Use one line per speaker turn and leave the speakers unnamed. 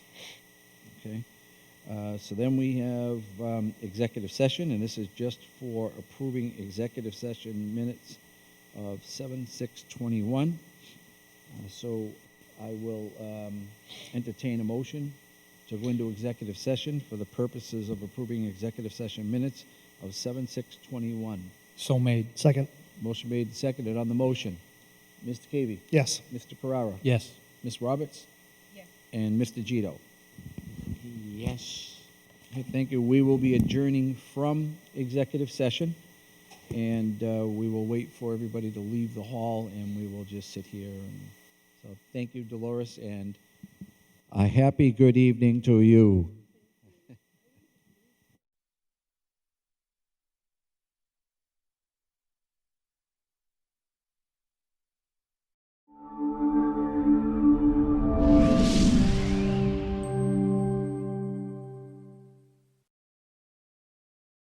Okay. Uh, So then we have um, executive session, and this is just for approving executive session minutes of 7/6/21. Uh, So I will um, entertain a motion to go into executive session for the purposes of approving executive session minutes of 7/6/21.
So made.
Second,
Motion made and seconded on the motion. Mr. Cavey?
yes.
Mr. Carrara?
Yes.
Ms. Roberts?
Yes.
And Mr. Gito?
Yes.
Okay, Thank you. We will be adjourning from executive session, and uh, we will wait for everybody to leave the hall, and we will just sit here. And So thank you, Dolores, and a happy good evening to you.